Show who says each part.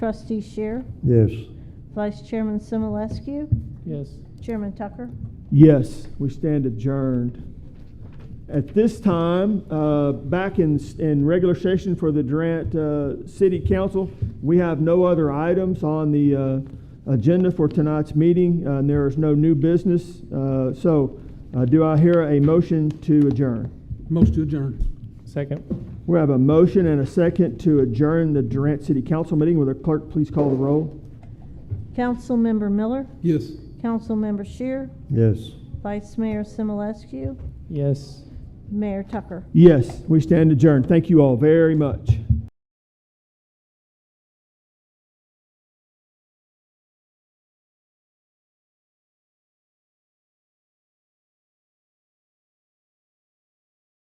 Speaker 1: Trustee Shear,
Speaker 2: Yes.
Speaker 1: Vice Chairman Simulescu,
Speaker 3: Yes.
Speaker 1: Chairman Tucker.
Speaker 3: Yes, we stand adjourned. At this time, uh, back in, in regular session for the Durant uh, City Council, we have no other items on the uh, agenda for tonight's meeting, uh, and there is no new business. Uh, So uh, do I hear a motion to adjourn?
Speaker 4: Most to adjourn.
Speaker 5: Second.
Speaker 3: We have a motion and a second to adjourn the Durant City Council meeting. Will the clerk please call the roll?
Speaker 1: Councilmember Miller,
Speaker 4: Yes.
Speaker 1: Councilmember Shear,
Speaker 2: Yes.
Speaker 1: Vice Mayor Simulescu,
Speaker 5: Yes.
Speaker 1: Mayor Tucker.
Speaker 3: Yes, we stand adjourned. Thank you all very much.